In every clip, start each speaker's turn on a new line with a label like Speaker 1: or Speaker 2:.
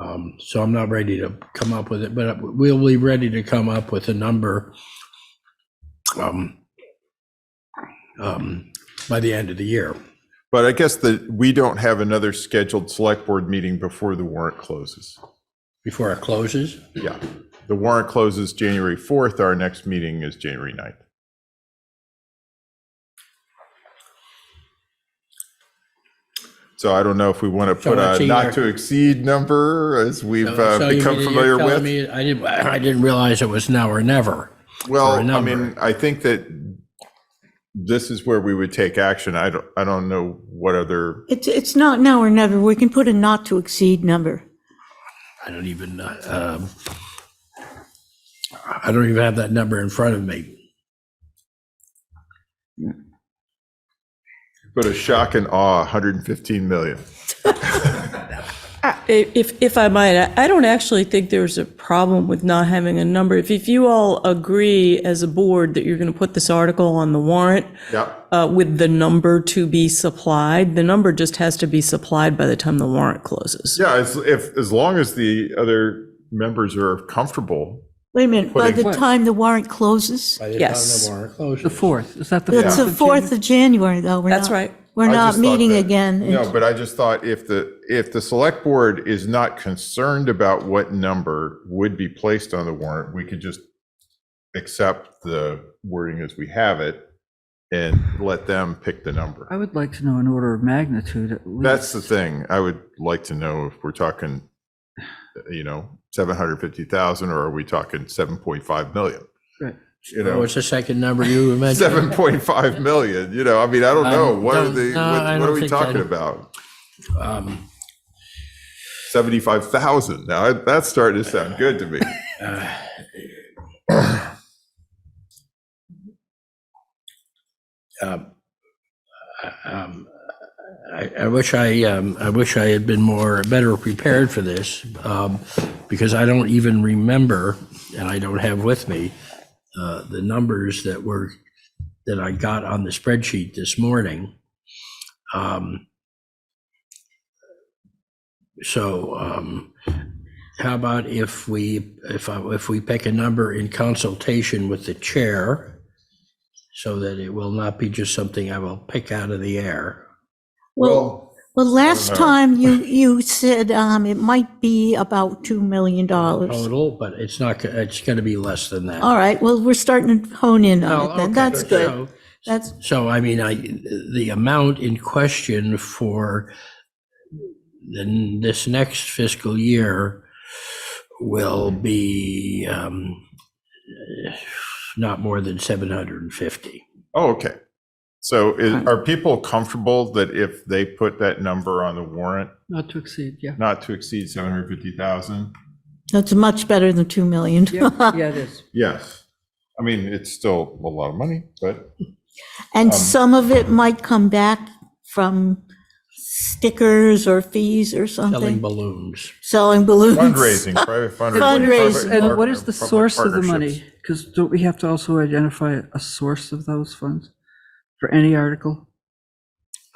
Speaker 1: Um, So I'm not ready to come up with it, but we'll be ready to come up with a number um, um, by the end of the year.
Speaker 2: But I guess that we don't have another scheduled select board meeting before the warrant closes.
Speaker 1: Before it closes?
Speaker 2: Yeah. The warrant closes January 4th. Our next meeting is January 9th. So I don't know if we want to
Speaker 1: So
Speaker 2: put
Speaker 1: it's
Speaker 2: a
Speaker 1: either-
Speaker 2: not to exceed number as we've uh,
Speaker 1: So you
Speaker 2: become
Speaker 1: mean you're
Speaker 2: familiar
Speaker 1: telling
Speaker 2: with.
Speaker 1: me- I didn't, I didn't realize it was now or never. for a
Speaker 2: Well, I
Speaker 1: number.
Speaker 2: mean, I think that this is where we would take action. I don't, I don't know what other,
Speaker 3: It's, it's not now or never. We can put a not to exceed number.
Speaker 1: I don't even, uh, um, I don't even have that number in front of me.
Speaker 2: but a shock and awe, 115 million.
Speaker 4: I- If, if I might, I- I don't actually think there's a problem with not having a number. If, if you all agree as a board that you're going to put this article on the warrant
Speaker 2: Yeah.
Speaker 4: uh, with the number to be supplied, the number just has to be supplied by the time the warrant closes.
Speaker 2: Yeah, as, if, as long as the other members are comfortable.
Speaker 3: Wait a minute, by
Speaker 2: Putting-
Speaker 3: the time the warrant closes?
Speaker 1: By the time the
Speaker 4: Yes.
Speaker 1: warrant closes.
Speaker 5: The fourth, is that the?
Speaker 3: It's the
Speaker 5: fourth?
Speaker 3: 4th of January, though. We're
Speaker 4: That's
Speaker 3: not-
Speaker 4: right.
Speaker 3: We're
Speaker 2: I
Speaker 3: not
Speaker 2: just thought
Speaker 3: meeting
Speaker 2: that-
Speaker 3: again.
Speaker 2: No, but I just thought if the, if the select board is not concerned about what number would be placed on the warrant, we could just accept the wording as we have it and let them pick the number.
Speaker 5: I would like to know an order of magnitude at least.
Speaker 2: That's the thing. I would like to know if we're talking, you know, 750,000 or are we talking 7.5 million?
Speaker 5: Right.
Speaker 2: You
Speaker 1: What
Speaker 2: know,
Speaker 1: was the second number you mentioned?
Speaker 2: 7.5 million, you know, I mean, I don't
Speaker 1: I
Speaker 2: know.
Speaker 1: don't-
Speaker 2: What are the,
Speaker 1: no,
Speaker 2: what
Speaker 1: I
Speaker 2: what are
Speaker 1: don't
Speaker 2: we
Speaker 1: think I-
Speaker 2: talking about?
Speaker 1: Um,
Speaker 2: 75,000. Now I- that's starting to sound good to me.
Speaker 1: um, um, I I wish I, um, I wish I had been more, better prepared for this, um, because I don't even remember, and I don't have with me, uh, the numbers that were, that I got on the spreadsheet this morning. Um, So um, how about if we, if I, if we pick a number in consultation with the chair, so that it will not be just something I will pick out of the air.
Speaker 3: Well, well, last
Speaker 2: know.
Speaker 3: time you, you said um, it might be about $2 million.
Speaker 2: Oh,
Speaker 3: All
Speaker 1: total, but it's not, go- it's going to be less than that.
Speaker 3: right, well, we're starting to hone in on
Speaker 1: Oh,
Speaker 3: it then.
Speaker 1: okay.
Speaker 3: That's good.
Speaker 1: So-
Speaker 3: That's,
Speaker 1: So I mean, I, the amount in question for then this next fiscal year will be um, not more than 750.
Speaker 2: Oh, okay. So is, are people comfortable that if they put that number on the warrant,
Speaker 5: Not to exceed, yeah.
Speaker 2: not to exceed 750,000?
Speaker 3: that's much better than 2 million.
Speaker 5: Yeah, yeah, it is.
Speaker 2: Yes. I mean, it's still a lot of money, but
Speaker 3: And
Speaker 2: Um,
Speaker 3: some of it might come back from stickers or fees or
Speaker 1: Selling
Speaker 3: something,
Speaker 1: balloons.
Speaker 3: selling balloons.
Speaker 2: fundraising, private fundraising.
Speaker 3: Fundraising.
Speaker 2: public-
Speaker 5: And what is the
Speaker 2: public
Speaker 5: source of the money?
Speaker 2: partnerships.
Speaker 5: Because don't we have to also identify a source of those funds for any article?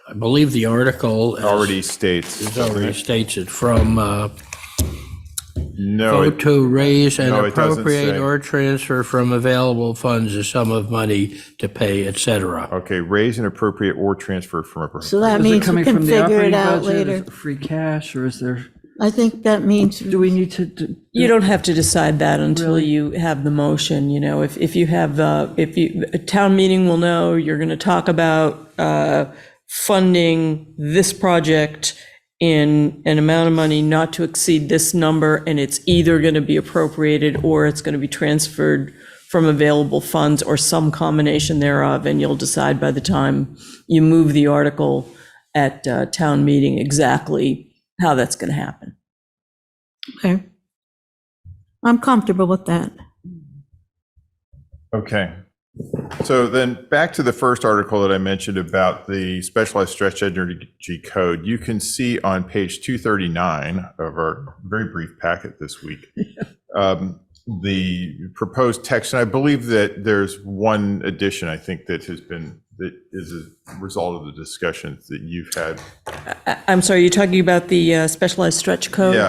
Speaker 1: I believe the article is-
Speaker 2: Already states.
Speaker 1: is already states it from uh,
Speaker 2: No,
Speaker 1: vote
Speaker 2: it-
Speaker 1: to raise and
Speaker 2: No, it doesn't
Speaker 1: appropriate
Speaker 2: say.
Speaker 1: or transfer from available funds a sum of money to pay, et cetera.
Speaker 2: okay, raise an appropriate or transfer from
Speaker 3: So
Speaker 2: appropriate.
Speaker 3: that
Speaker 5: Is it
Speaker 3: means we
Speaker 5: coming
Speaker 3: can
Speaker 5: from the
Speaker 3: figure it
Speaker 5: operating
Speaker 3: out
Speaker 5: budget? Is
Speaker 3: later.
Speaker 5: it free cash or is there,
Speaker 3: I think that means,
Speaker 5: do we need to? do-
Speaker 4: You don't have to decide that until you have the motion, you know, if, if you have, uh, if you, a town meeting will know, you're going to talk about, uh, funding this project in an amount of money not to exceed this number, and it's either going to be appropriated or it's going to be transferred from available funds or some combination thereof, and you'll decide by the time you move the article at, uh, town meeting exactly how that's going to happen.
Speaker 3: okay. I'm comfortable with that.
Speaker 2: Okay. So then back to the first article that I mentioned about the specialized stretch energy code. You can see on page 239 of our very brief packet this week, um, the proposed text, and I believe that there's one addition, I think, that has been, that is a result of the discussions that you've had
Speaker 4: I- I'm sorry, you're talking about the uh, specialized stretch code?
Speaker 2: Yeah,